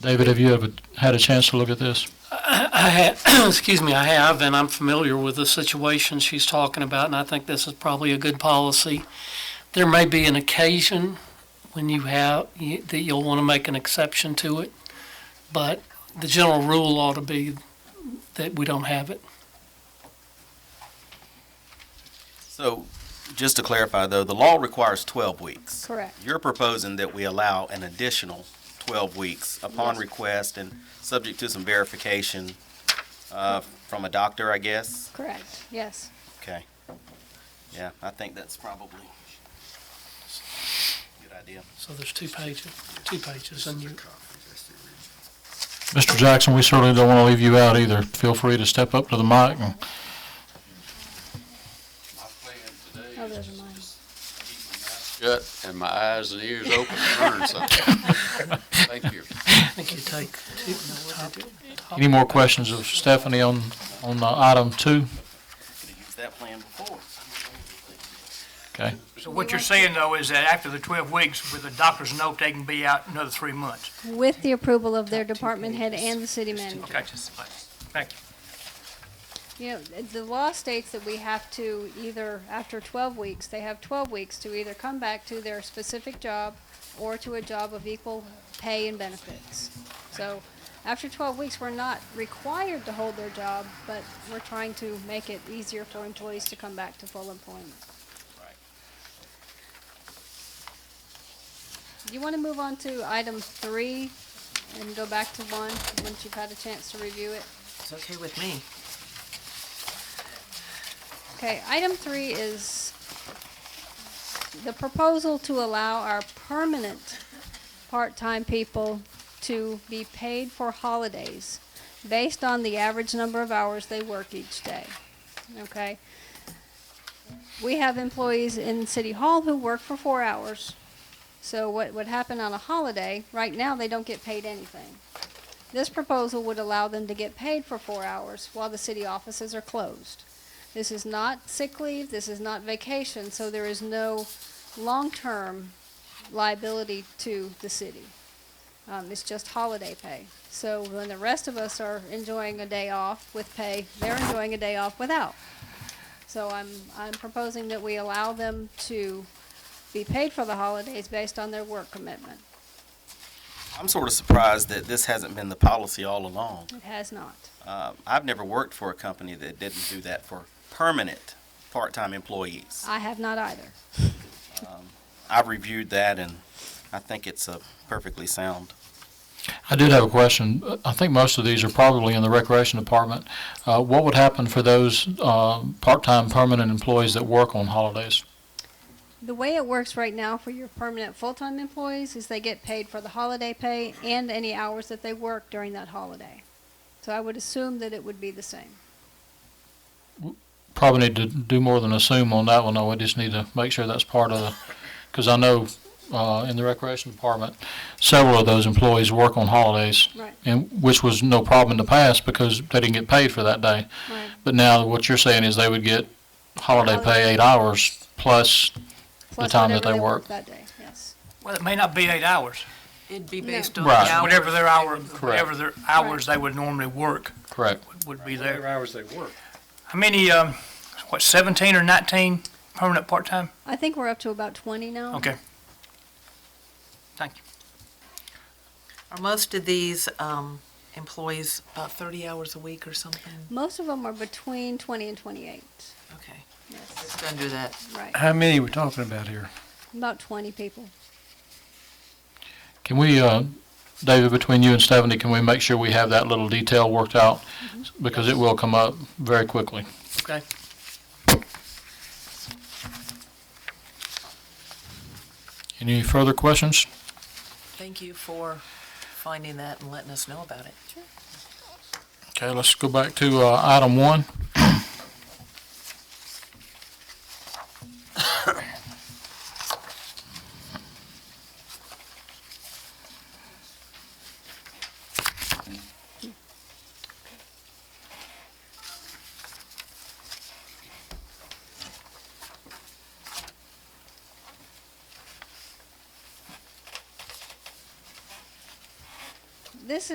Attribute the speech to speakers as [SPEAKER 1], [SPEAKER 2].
[SPEAKER 1] David, have you ever had a chance to look at this?
[SPEAKER 2] I I have, excuse me, I have, and I'm familiar with the situation she's talking about, and I think this is probably a good policy. There may be an occasion when you have, you- that you'll want to make an exception to it, but the general rule ought to be that we don't have it.
[SPEAKER 3] So, just to clarify though, the law requires twelve weeks.
[SPEAKER 4] Correct.
[SPEAKER 3] You're proposing that we allow an additional twelve weeks upon request and subject to some verification, uh, from a doctor, I guess?
[SPEAKER 4] Correct, yes.
[SPEAKER 3] Okay. Yeah, I think that's probably a good idea.
[SPEAKER 2] So there's two pages, two pages, and you,
[SPEAKER 1] Mr. Jackson, we certainly don't want to leave you out either. Feel free to step up to the mic and
[SPEAKER 5] My plan
[SPEAKER 4] Oh,
[SPEAKER 5] today is
[SPEAKER 4] those
[SPEAKER 5] to
[SPEAKER 4] are mine.
[SPEAKER 5] keep my mouth shut and my eyes and ears open and learn something. Thank you.
[SPEAKER 2] I think you take two, top, top.
[SPEAKER 1] any more questions of Stephanie on, on uh, item two?
[SPEAKER 3] Could've used that plan before.
[SPEAKER 1] Okay.
[SPEAKER 6] So what you're saying, though, is that after the 12 weeks, with a doctor's note, they can be out another three months.
[SPEAKER 4] With the approval of their department head and the city manager.
[SPEAKER 6] Okay, thank you.
[SPEAKER 4] You know, the law states that we have to either, after twelve weeks, they have twelve weeks to either come back to their specific job or to a job of equal pay and benefits. So, after twelve weeks, we're not required to hold their job, but we're trying to make it easier for employees to come back to full employment. You wanna move on to item three and go back to one, once you've had a chance to review it?
[SPEAKER 7] It's okay with me.
[SPEAKER 4] Okay, item three is the proposal to allow our permanent part-time people to be paid for holidays based on the average number of hours they work each day, okay? We have employees in City Hall who work for four hours. So what would happen on a holiday, right now, they don't get paid anything. This proposal would allow them to get paid for four hours while the city offices are closed. This is not sick leave, this is not vacation, so there is no long-term liability to the city. Um, it's just holiday pay. So when the rest of us are enjoying a day off with pay, they're enjoying a day off without. So I'm, I'm proposing that we allow them to be paid for the holidays based on their work commitment.
[SPEAKER 3] I'm sort of surprised that this hasn't been the policy all along.
[SPEAKER 4] It has not.
[SPEAKER 3] Uh, I've never worked for a company that didn't do that for permanent, part-time employees.
[SPEAKER 4] I have not either.
[SPEAKER 3] I've reviewed that and I think it's a perfectly sound
[SPEAKER 1] I did have a question. I think most of these are probably in the recreation department. Uh, what would happen for those, uh, part-time permanent employees that work on holidays?
[SPEAKER 4] The way it works right now for your permanent full-time employees is they get paid for the holiday pay and any hours that they work during that holiday. So I would assume that it would be the same.
[SPEAKER 1] Probably need to do more than assume on that one, though. We just need to make sure that's part of the, because I know, uh, in the recreation department, several of those employees work on holidays.
[SPEAKER 4] Right.
[SPEAKER 1] And, which was no problem in the past because they didn't get paid for that day.
[SPEAKER 4] Right.
[SPEAKER 1] But now what you're saying is they would get holiday pay eight hours plus,
[SPEAKER 4] Plus
[SPEAKER 1] time that
[SPEAKER 4] whatever
[SPEAKER 1] they work.
[SPEAKER 4] That day, yes.
[SPEAKER 6] Well, it may not be eight hours,
[SPEAKER 7] It'd be
[SPEAKER 4] No.
[SPEAKER 7] based on the
[SPEAKER 1] Right.
[SPEAKER 7] hours.
[SPEAKER 6] whatever their hour,
[SPEAKER 1] Correct.
[SPEAKER 6] whatever their hours they would normally work
[SPEAKER 1] correct,
[SPEAKER 6] would be there.
[SPEAKER 8] hours they work.
[SPEAKER 6] How many, um, what, 17 or 19 permanent part-time?
[SPEAKER 4] I think we're up to about twenty now.
[SPEAKER 6] Okay. Thank you.
[SPEAKER 7] Are most of these um, employees about 30 hours a week or something?
[SPEAKER 4] Most of them are between twenty and twenty-eight.
[SPEAKER 7] Okay,
[SPEAKER 4] Yes,
[SPEAKER 7] just under that.
[SPEAKER 4] right.
[SPEAKER 8] How many we talking about here?
[SPEAKER 4] About twenty people.
[SPEAKER 1] Can we, uh, David, between you and Stephanie, can we make sure we have that little detail worked out? Because it will come up very quickly.
[SPEAKER 6] Okay.
[SPEAKER 1] Any further questions?
[SPEAKER 7] Thank you for finding that and letting us know about it.
[SPEAKER 1] Okay, let's go back to, uh, item one.